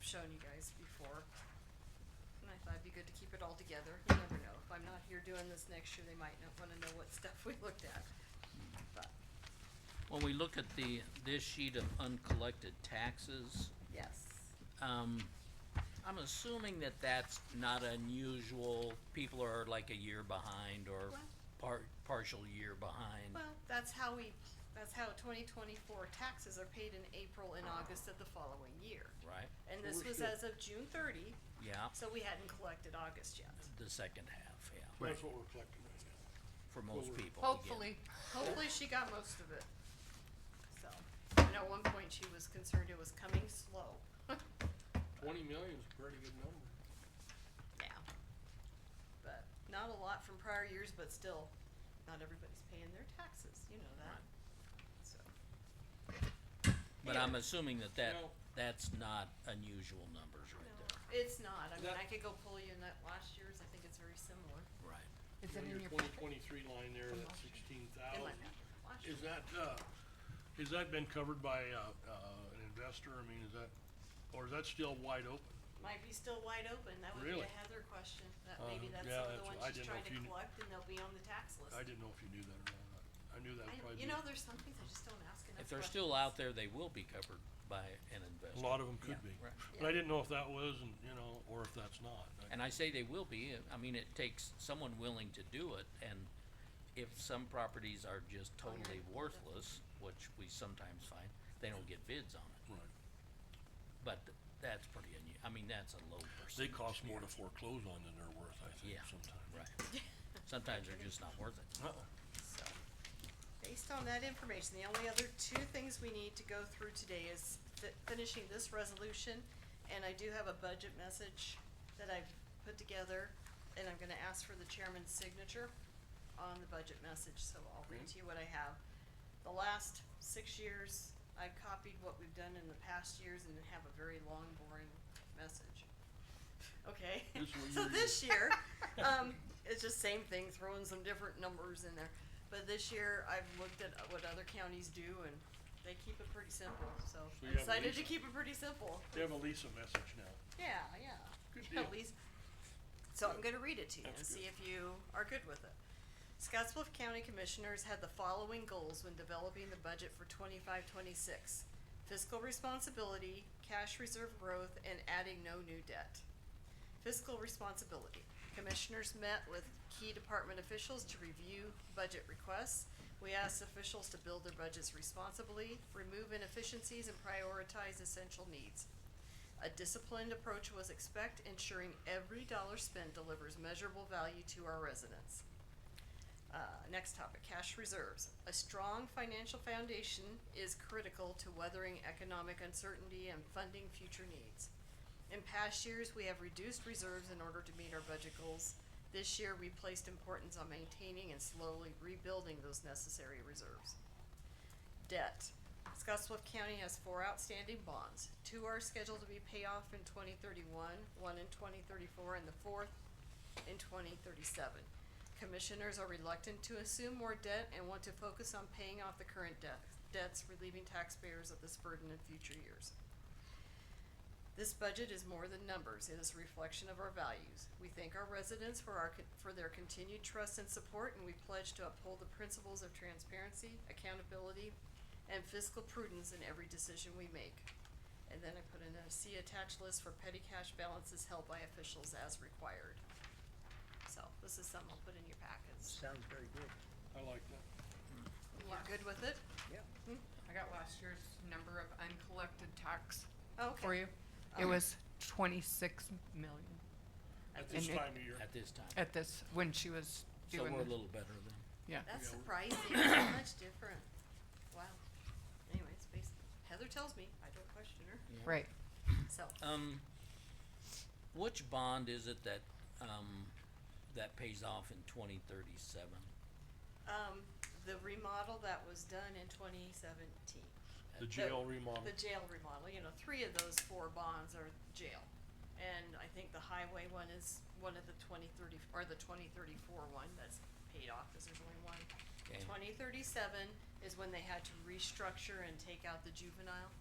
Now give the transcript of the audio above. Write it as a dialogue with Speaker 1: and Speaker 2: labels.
Speaker 1: shown you guys before. And I thought it'd be good to keep it all together, you never know, if I'm not here doing this next year, they might not wanna know what stuff we looked at. But,
Speaker 2: When we look at the, this sheet of uncollected taxes,
Speaker 1: yes,
Speaker 2: um, I'm assuming that that's not unusual. People are like a year behind or
Speaker 1: Well-
Speaker 2: par- partial year behind.
Speaker 1: well, that's how we, that's how twenty twenty-four taxes are paid in April and August of the following year.
Speaker 2: Right,
Speaker 1: And this
Speaker 3: we're
Speaker 1: was
Speaker 3: still-
Speaker 1: as of June thirty,
Speaker 2: yeah,
Speaker 1: so we hadn't collected August yet.
Speaker 2: the second half, yeah,
Speaker 3: That's what we're collecting right now.
Speaker 2: for most
Speaker 3: we're-
Speaker 2: people. again.
Speaker 1: Hopefully, hopefully she got most of it. So, and at one point she was concerned it was coming slow.
Speaker 3: Twenty million's a pretty good number.
Speaker 1: Yeah. But not a lot from prior years, but still, not everybody's paying their taxes, you know that, so.
Speaker 2: But I'm assuming that that,
Speaker 3: No.
Speaker 2: that's not unusual numbers right
Speaker 1: No,
Speaker 2: there,
Speaker 1: It's not, I mean,
Speaker 3: That-
Speaker 1: I could go pull you in that last year's, I think it's very similar.
Speaker 2: right?
Speaker 4: Is it
Speaker 3: On
Speaker 4: in your
Speaker 3: Twenty
Speaker 4: packet?
Speaker 3: twenty-three line there,
Speaker 4: From
Speaker 3: that's
Speaker 4: last year.
Speaker 3: sixteen
Speaker 1: In my
Speaker 3: thousand.
Speaker 1: map, last
Speaker 3: Is
Speaker 1: year.
Speaker 3: that, uh, has that been covered by, uh, uh, an investor? I mean, is that, or is that still wide open?
Speaker 1: Might be still wide open, that would be
Speaker 3: Really?
Speaker 1: a Heather question, that maybe
Speaker 3: Uh,
Speaker 1: that's
Speaker 3: yeah,
Speaker 1: some of the
Speaker 3: that's-
Speaker 1: ones
Speaker 3: I
Speaker 1: she's
Speaker 3: didn't know
Speaker 1: trying
Speaker 3: if
Speaker 1: to
Speaker 3: you kn-
Speaker 1: collect and they'll be on the tax list.
Speaker 3: I didn't know if you knew that or not. I knew that
Speaker 1: I don't-
Speaker 3: probably.
Speaker 1: You
Speaker 3: be-
Speaker 1: know, there's some things I just don't ask enough
Speaker 2: If
Speaker 1: questions.
Speaker 2: they're still out there, they will be covered by an investor.
Speaker 3: A lot of them could
Speaker 2: Yeah,
Speaker 3: be.
Speaker 2: right.
Speaker 3: But I didn't know if that was and, you know, or if that's not. I-
Speaker 2: And I say they will be, I mean, it takes someone willing to do it, and if some properties are just
Speaker 1: Oh, you're
Speaker 2: totally
Speaker 1: right.
Speaker 2: worthless, which we sometimes find, they don't get bids on it,
Speaker 3: Right.
Speaker 2: but th- that's pretty unu- I mean, that's a low
Speaker 3: They
Speaker 2: percentage.
Speaker 3: cost more to foreclose on than they're worth, I think,
Speaker 2: Yeah.
Speaker 3: sometimes.
Speaker 2: Right. Sometimes they're just not worth it.
Speaker 3: Uh-uh.
Speaker 1: So, based on that information, the only other two things we need to go through today is fi- finishing this resolution, and I do have a budget message that I've put together, and I'm gonna ask for the chairman's signature on the budget message, so I'll read to you what I have. The last six years, I've copied what we've done in the past years and have a very long, boring message. Okay,
Speaker 3: This is what
Speaker 1: so
Speaker 3: you read.
Speaker 1: this year, um, it's just same thing, throwing some different numbers in there. But this year, I've looked at what other counties do and they keep it pretty simple, so I
Speaker 3: So you have
Speaker 1: decided to
Speaker 3: Lisa.
Speaker 1: keep it pretty simple.
Speaker 3: They have a Lisa message now.
Speaker 1: Yeah, yeah.
Speaker 3: Good
Speaker 1: Yeah,
Speaker 3: deal.
Speaker 1: Lisa. So I'm gonna read it to you and
Speaker 3: That's
Speaker 1: see
Speaker 3: good.
Speaker 1: if you are good with it. Scottsbluff County Commissioners had the following goals when developing the budget for twenty-five, twenty-six. Fiscal responsibility, cash reserve growth, and adding no new debt. Fiscal responsibility. Commissioners met with key department officials to review budget requests. We asked officials to build their budgets responsibly, remove inefficiencies, and prioritize essential needs. A disciplined approach was expect, ensuring every dollar spent delivers measurable value to our residents. Uh, next topic, cash reserves. A strong financial foundation is critical to weathering economic uncertainty and funding future needs. In past years, we have reduced reserves in order to meet our budget goals. This year, we placed importance on maintaining and slowly rebuilding those necessary reserves. Debt. Scottsbluff County has four outstanding bonds. Two are scheduled to be paid off in twenty thirty-one, one in twenty thirty-four, and the fourth in twenty thirty-seven. Commissioners are reluctant to assume more debt and want to focus on paying off the current debt, debts relieving taxpayers of this burden in future years. This budget is more than numbers, it is a reflection of our values. We thank our residents for our, con- for their continued trust and support, and we pledge to uphold the principles of transparency, accountability, and fiscal prudence in every decision we make. And then I put in a C attached list for petty cash balances held by officials as required. So this is something I'll put in your packets.
Speaker 4: Sounds very good,
Speaker 3: I like that.
Speaker 1: You good with it?
Speaker 4: yeah.
Speaker 5: I got last year's number of uncollected tax for
Speaker 1: Okay.
Speaker 5: you. It was twenty-six million
Speaker 3: At this
Speaker 5: And it-
Speaker 3: time of year.
Speaker 2: At this time,
Speaker 5: at this, when she was
Speaker 2: so
Speaker 5: doing
Speaker 2: we're a
Speaker 5: the,
Speaker 2: little better than,
Speaker 5: yeah.
Speaker 1: That's
Speaker 3: Yeah, we-
Speaker 1: surprising, so much different. Wow. Anyway, it's based, Heather tells me, I don't question her,
Speaker 5: Right.
Speaker 1: so.
Speaker 2: um, which bond is it that, um, that pays off in twenty thirty-seven?
Speaker 1: Um, the remodel that was done in twenty seventeen,
Speaker 3: The jail remodel.
Speaker 1: the jail remodel, you know, three of those four bonds are jail. And I think the highway one is one of the twenty thirty, or the twenty thirty-four one that's paid off, cause there's only one.
Speaker 2: Okay.
Speaker 1: Twenty thirty-seven is when they had to restructure and take out the juvenile.